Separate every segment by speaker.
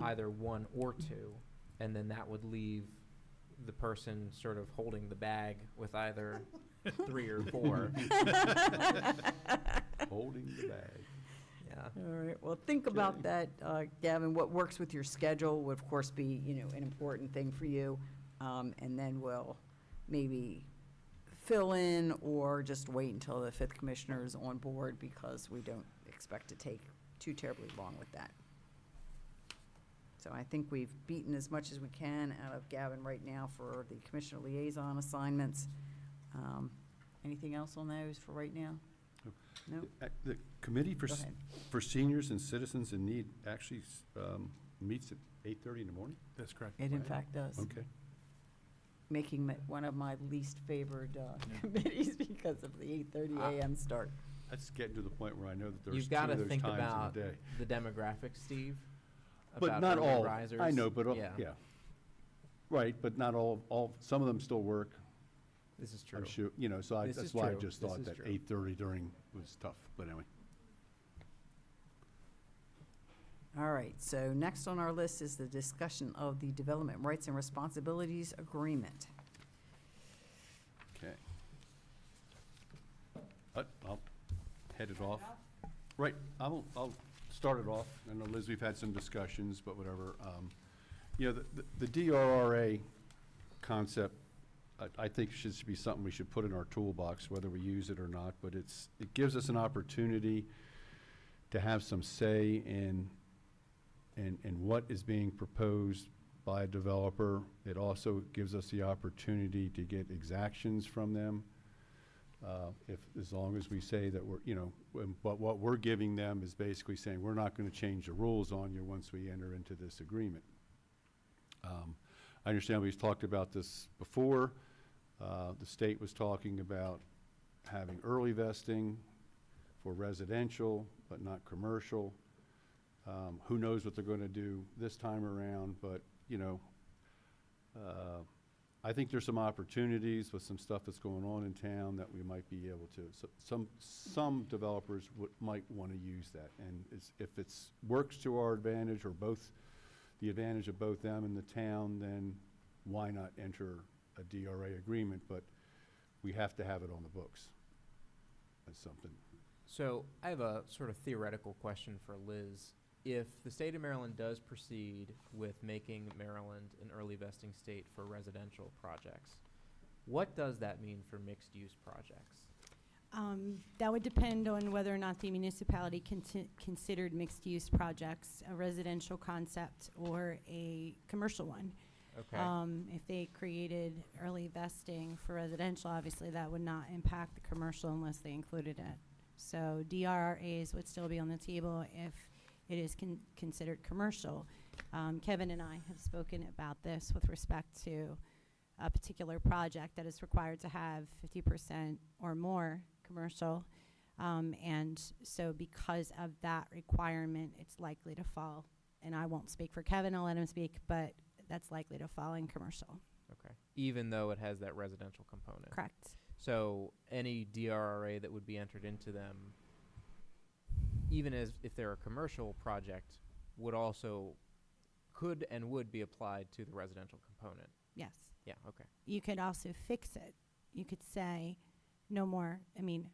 Speaker 1: either one or two, and then that would leave the person sort of holding the bag with either three or four.
Speaker 2: Holding the bag.
Speaker 1: Yeah.
Speaker 3: All right, well, think about
Speaker 2: Okay.
Speaker 3: that, uh, Gavin. What works with your schedule would, of course, be, you know, an important thing for you. Um, And then we'll maybe fill in or just wait until the fifth commissioner is on board because we don't expect to take too terribly long with that. So I think we've beaten as much as we can out of Gavin right now for the commissioner liaison assignments. Um, Anything else on those for right now?
Speaker 2: No.
Speaker 3: No?
Speaker 2: Uh, The Committee for,
Speaker 3: Go
Speaker 2: S-
Speaker 3: ahead.
Speaker 2: for Seniors and Citizens in Need actually s- um, meets at 8:30 in the morning?
Speaker 4: That's correct.
Speaker 3: It in fact does.
Speaker 2: Okay.
Speaker 3: making it one of my least favored uh, committees because of the 8:30
Speaker 1: Ah.
Speaker 3: a.m. start.
Speaker 2: That's getting to the point where I know that there's
Speaker 1: You've
Speaker 2: two
Speaker 1: got to
Speaker 2: of those
Speaker 1: think about
Speaker 2: times in the
Speaker 1: the,
Speaker 2: day.
Speaker 1: demographics, Steve.
Speaker 2: But
Speaker 1: about
Speaker 2: not
Speaker 1: early
Speaker 2: all,
Speaker 1: Risers.
Speaker 2: I know, but, all-
Speaker 1: yeah,
Speaker 2: yeah. Right, but not all, all, some of them still work,
Speaker 1: This is true.
Speaker 2: I'm sure, you know, so I-
Speaker 1: This is
Speaker 2: that's why I
Speaker 1: true.
Speaker 2: just
Speaker 1: This
Speaker 2: thought
Speaker 1: is
Speaker 2: that
Speaker 1: true.
Speaker 2: 8:30 during was tough, but anyway.
Speaker 3: All right, so next on our list is the discussion of the Development Rights and Responsibilities Agreement.
Speaker 2: Okay. I'll head it off. Right, I'll, I'll start it off. I know, Liz, we've had some discussions, but whatever. Um, You know, the- the the DRRA concept, I, I think should be something we should put in our toolbox, whether we use it or not, but it's, it gives us an opportunity to have some say in, in, in what is being proposed by a developer. It also gives us the opportunity to get exactions from them. uh, If, as long as we say that we're, you know, when- but what we're giving them is basically saying, we're not going to change the rules on you once we enter into this agreement. Um, I understand we've talked about this before. Uh, The state was talking about having early vesting for residential, but not commercial. Um, Who knows what they're going to do this time around, but, you know, uh, I think there's some opportunities with some stuff that's going on in town that we might be able to, so- some, some developers would, might want to use that. And it's- if it's, works to our advantage or both, the advantage of both them and the town, then why not enter a DRA agreement? But we have to have it on the books. That's something.
Speaker 1: So I have a sort of theoretical question for Liz. If the state of Maryland does proceed with making Maryland an early vesting state for residential projects, what does that mean for mixed use projects?
Speaker 5: Um, That would depend on whether or not the municipality consi- considered mixed-use projects, a residential concept or a commercial one.
Speaker 1: Okay.
Speaker 5: Um, If they created early vesting for residential, obviously that would not impact the commercial unless they included it. So DRRAs would still be on the table if it is con- considered commercial. Um, Kevin and I have spoken about this with respect to a particular project that is required to have fifty percent or more commercial. Um, and so because of that requirement, it's likely to fall. And I won't speak for Kevin, I'll let him speak, but that's likely to fall in commercial,
Speaker 1: okay. Even though it has that residential component.
Speaker 5: correct?
Speaker 1: So any DRRA that would be entered into them, even as if they're a commercial project, would also could and would be applied to the residential component.
Speaker 5: Yes.
Speaker 1: Yeah, okay.
Speaker 5: You could also fix it. You could say, no more, I mean,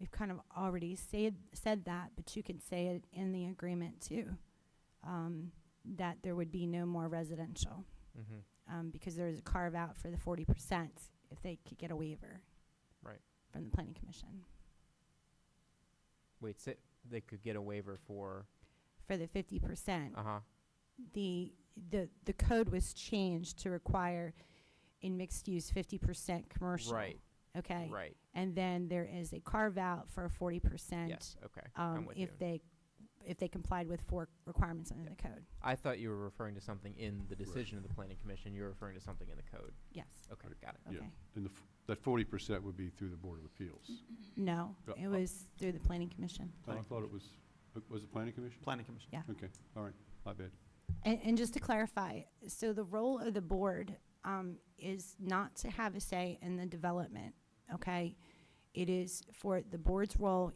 Speaker 5: we've kind of already said, said that, but you could say it in the agreement too. Um, that there would be no more residential,
Speaker 1: Mm-hmm.
Speaker 5: um, because there is a carve out for the forty percent if they could get a waiver.
Speaker 1: Right.
Speaker 5: From the planning commission,
Speaker 1: Wait, sit, they could get a waiver for,
Speaker 5: for the fifty percent.
Speaker 1: uh-huh,
Speaker 5: the, the, the code was changed to require in mixed use fifty percent commercial.
Speaker 1: Right.
Speaker 5: Okay.
Speaker 1: right,
Speaker 5: And then there is a carve out for forty percent.
Speaker 1: yes, okay, I'm
Speaker 5: Um,
Speaker 1: with you.
Speaker 5: if they, if they complied with four requirements under the code.
Speaker 1: I thought you were referring to something in the decision of the planning commission, you were referring to something in the code.
Speaker 5: Yes.
Speaker 1: Okay,
Speaker 2: Right.
Speaker 1: got it.
Speaker 2: Yeah.
Speaker 5: Okay.
Speaker 2: And the, f- that forty percent would be through the Board of Appeals.
Speaker 5: No,
Speaker 2: Uh,
Speaker 5: it
Speaker 2: uh,
Speaker 5: was through the planning commission.
Speaker 2: I thought it was, was it Planning Commission?
Speaker 4: Planning Commission.
Speaker 2: Okay, all right, my bad.
Speaker 5: And, and just to clarify, so the role of the board um, is not to have a say in the development, okay? It is for, the board's role